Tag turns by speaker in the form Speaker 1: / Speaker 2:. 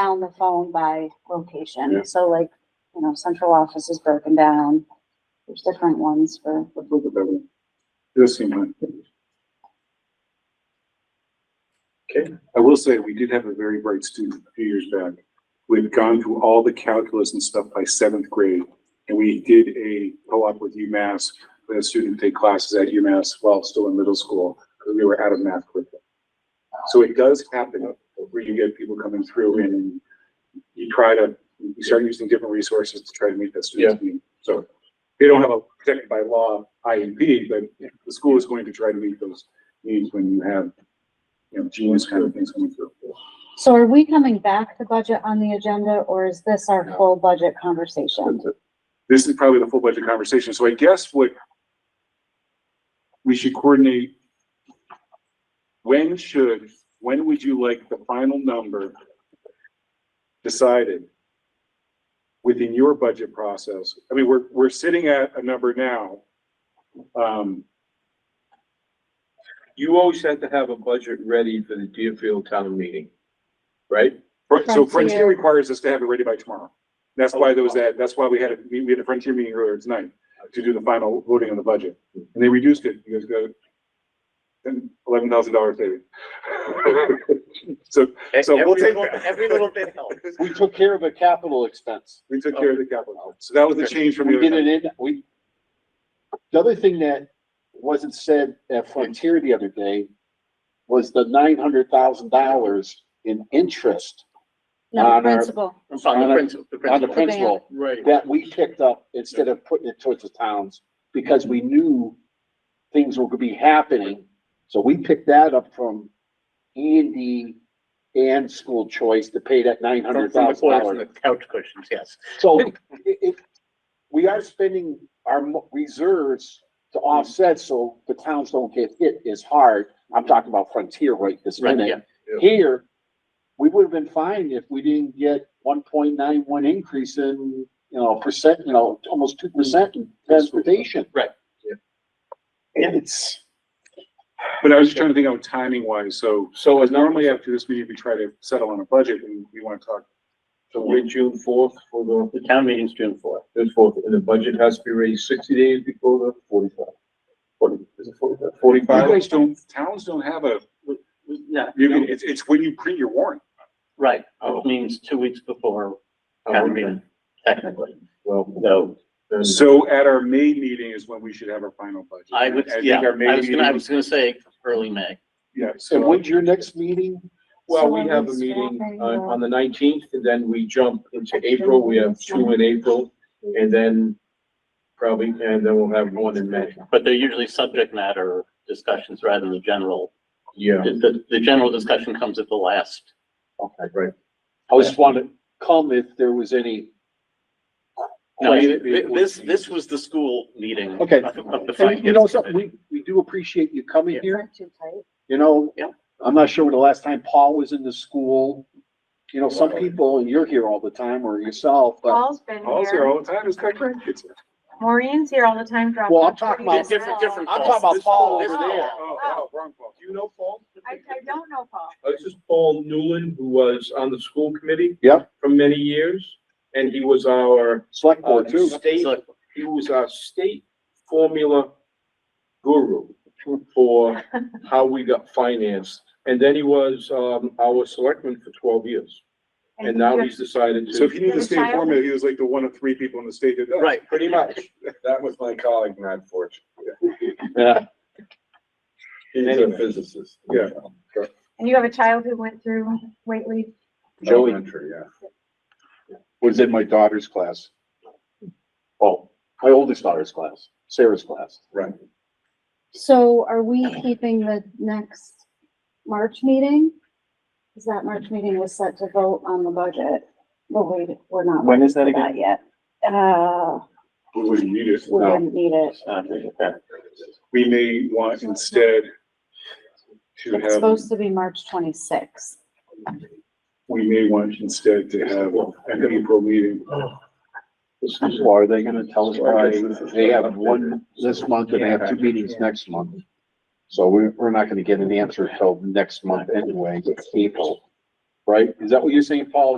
Speaker 1: down the phone by
Speaker 2: Yeah.
Speaker 1: location. So like, you know, central office is broken down. There's different ones for,
Speaker 2: Let's look at that one. Just seem like. Okay, I will say, we did have a very bright student a few years back. We had gone through all the calculus and stuff by seventh grade. And we did a co-op with UMass, we had a student take classes at UMass while still in middle school, because we were out of math curriculum. So it does happen, where you get people coming through and you try to, you start using different resources to try to meet that student's need. So they don't have a protected by law IEP, but the school is going to try to meet those needs when you have, you know, genius kind of things coming through.
Speaker 1: so are we coming back to budget on the agenda or is this our
Speaker 2: No.
Speaker 1: full budget conversation?
Speaker 2: This is probably the full budget conversation, so I guess what we should coordinate, when should, when would you like the final number decided within your budget process? I mean, we're, we're sitting at a number now. Um,
Speaker 3: You always have to have a budget ready for the Deerfield town meeting, right?
Speaker 2: Fr- So
Speaker 1: Frontier.
Speaker 2: Frontier requires us to have it ready by tomorrow. That's why there was that, that's why we had, a- we we had a Frontier meeting earlier tonight to do the final voting on the budget. And they reduced it because the eleven thousand dollar savings. So So we'll take
Speaker 4: Every little-
Speaker 2: that.
Speaker 4: Every little bit helps.
Speaker 5: We took care of a capital expense.
Speaker 2: we took care of the capital. So that was the change from
Speaker 5: We
Speaker 2: the
Speaker 5: did
Speaker 2: other.
Speaker 5: it in, we. The other thing that wasn't said at Frontier the other day was the nine hundred thousand dollars in interest
Speaker 1: No,
Speaker 5: On our-
Speaker 1: principal.
Speaker 4: It's on
Speaker 5: On
Speaker 4: the
Speaker 5: a-
Speaker 4: principal, the
Speaker 5: on the
Speaker 4: principal.
Speaker 5: principal
Speaker 4: Right.
Speaker 5: that we picked up instead of putting it towards the towns because we knew things were gonna be happening. So we picked that up from E and D and school choice to pay that nine
Speaker 4: From
Speaker 5: hundred
Speaker 4: from the
Speaker 5: thousand
Speaker 4: corners
Speaker 5: dollars.
Speaker 4: and the couch cushions, yes.
Speaker 5: So it, it, we are spending our mo- reserves to
Speaker 4: Mm-hmm.
Speaker 5: offset so the towns don't get hit as hard. I'm talking about Frontier right this
Speaker 4: Right,
Speaker 5: minute. Here, we would have been fine if we didn't get one point nine one increase in, you know, percent, you know, almost two percent in transportation.
Speaker 4: Mm-hmm. Right,
Speaker 3: yeah.
Speaker 5: It's,
Speaker 2: But I was just trying to think out timing wise, so
Speaker 3: So
Speaker 2: because
Speaker 3: it's normally
Speaker 2: normally after this meeting, we try to settle on a budget and we want to talk.
Speaker 3: so we're June fourth for the,
Speaker 4: The town meeting's June fourth.
Speaker 3: the fourth, and the budget has to be ready sixty days before the forty-five. Forty, is it forty-five?
Speaker 2: You guys don't, towns don't have a,
Speaker 4: No,
Speaker 2: you
Speaker 4: no,
Speaker 2: can, it's, it's when you print your warrant.
Speaker 4: right,
Speaker 3: Oh.
Speaker 4: which means two weeks before Um, town
Speaker 3: Forty-five.
Speaker 4: meeting, technically.
Speaker 3: Well,
Speaker 4: So
Speaker 3: then,
Speaker 2: So at our May meeting is when we should have our final budget.
Speaker 4: I would,
Speaker 2: think
Speaker 4: yeah,
Speaker 2: our May
Speaker 4: I was gonna, I
Speaker 2: meeting-
Speaker 4: was gonna say early May.
Speaker 2: Yeah,
Speaker 5: and
Speaker 2: so
Speaker 5: when's your next meeting?
Speaker 3: well,
Speaker 1: So
Speaker 3: we
Speaker 1: are
Speaker 3: have
Speaker 1: we
Speaker 3: a meeting
Speaker 1: swapping
Speaker 3: on,
Speaker 1: the-
Speaker 3: on the nineteenth, and then we jump into April, we have two in April, and then probably, and then we'll have one in May.
Speaker 4: But they're usually subject matter discussions rather than the general.
Speaker 3: Yeah,
Speaker 4: The, the- the general discussion comes at the last.
Speaker 5: Okay,
Speaker 3: right.
Speaker 5: I just wanted to come if there was any.
Speaker 4: No,
Speaker 5: question.
Speaker 4: thi- this, this was the school meeting.
Speaker 5: Okay.
Speaker 4: of- Of the
Speaker 5: And you know something,
Speaker 4: finance.
Speaker 5: we, we do appreciate you coming
Speaker 4: Yeah.
Speaker 5: here,
Speaker 1: Too tight.
Speaker 5: you know?
Speaker 4: Yeah.
Speaker 5: I'm not sure when the last time Paul was in the school. You know, some people, and you're here all the time, or yourself, but,
Speaker 6: Paul's been
Speaker 2: Paul's here
Speaker 6: here.
Speaker 2: all the time, it's got grandkids.
Speaker 6: Maureen's here all the time dropping.
Speaker 5: Well, I'm talking
Speaker 6: pretty
Speaker 5: about-
Speaker 4: Different,
Speaker 6: stuff.
Speaker 4: different.
Speaker 5: I'm
Speaker 4: calls.
Speaker 5: talking about Paul
Speaker 4: This-
Speaker 5: over
Speaker 4: this-
Speaker 5: there.
Speaker 2: Oh, wow, wrong Paul.
Speaker 3: Do you know Paul?
Speaker 6: I, I don't know Paul.
Speaker 3: Uh, This is Paul Newland, who was on the school committee.
Speaker 5: Yep.
Speaker 3: For many years, and he was our,
Speaker 5: select
Speaker 3: uh,
Speaker 5: board too.
Speaker 3: state,
Speaker 4: So-
Speaker 3: he was our state formula guru for how we got financed. And then he was, um, our selectman for twelve years, and now he's decided
Speaker 2: So if
Speaker 3: to,
Speaker 2: you need the state formula, he was like the one of three people in the state that does.
Speaker 4: Right.
Speaker 3: pretty much. That was my colleague, Matt Fortune.
Speaker 5: Yeah.
Speaker 3: He's
Speaker 2: a
Speaker 3: physicist.
Speaker 2: Yeah.
Speaker 6: And you have a child who went through Whately?
Speaker 5: Joey
Speaker 3: yeah.
Speaker 5: was in my daughter's class. Oh, my oldest daughter's class, Sarah's class.
Speaker 3: Right.
Speaker 1: So are we keeping the next March meeting? Cause that March meeting was set to vote on the budget, but we, we're not. When is that again? Yet, uh,
Speaker 2: We wouldn't need it.
Speaker 1: we
Speaker 5: No.
Speaker 1: didn't need it.
Speaker 4: uh, okay.
Speaker 2: We may want instead to
Speaker 1: It's
Speaker 2: have,
Speaker 1: supposed to be March twenty-sixth.
Speaker 2: we may want instead to have an April meeting.
Speaker 5: Well, are they gonna tell us why they have one this month and they have two meetings next month? So we're, we're not gonna get an answer till next month anyway, it's April, right? Is that what you're saying, Paul?